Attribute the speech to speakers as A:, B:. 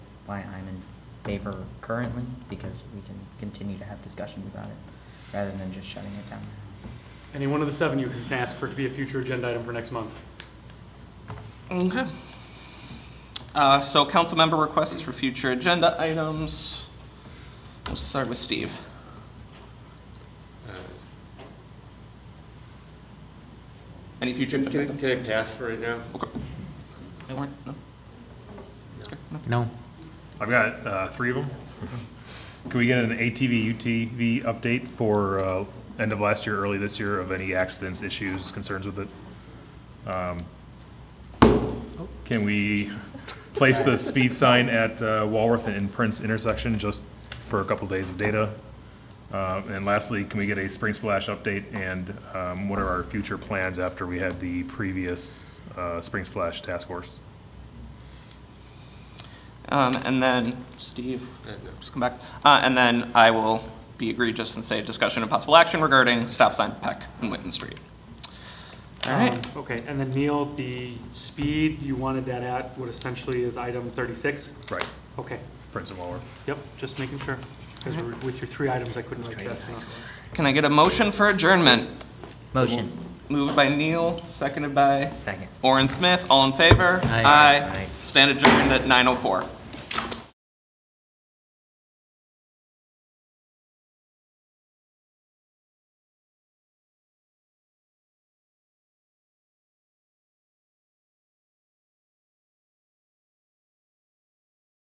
A: why I'm in favor currently, because we can continue to have discussions about it, rather than just shutting it down.
B: Any one of the seven, you can ask for it to be a future agenda item for next month.
C: Okay. Uh, So council member requests for future agenda items. We'll start with Steve.
D: Uh,
C: Any future
D: Can,
C: agenda
D: can
C: items?
D: can I pass for right now?
C: Warren? No? Okay, no.
E: No.
F: I've got uh, three of them. Can we get an ATV, UTV update for uh, end of last year, early this year, of any accidents, issues, concerns with it? Um, Can we place the speed sign at uh, Walworth and Prince intersection just for a couple days of data? Uh, And lastly, can we get a spring splash update and um, what are our future plans after we had the previous uh, spring splash task force?
C: Um, And then, Steve,
D: Uh, no.
C: just come back. Uh, And then I will be egregious and say discussion and possible action regarding stop sign Peck and Witten Street. All right,
B: Um, Okay, and then Neil, the speed you wanted that at, what essentially is item 36?
F: Right,
B: Okay,
F: Prince and Walworth.
B: yep, just making sure, because with your three items, I couldn't write fast enough.
C: can I get a motion for adjournment?
A: Motion,
C: Moved by Neil, seconded by
A: second.
C: Orin Smith, all in favor?
E: Aye.
C: Stand adjourned at 9:04.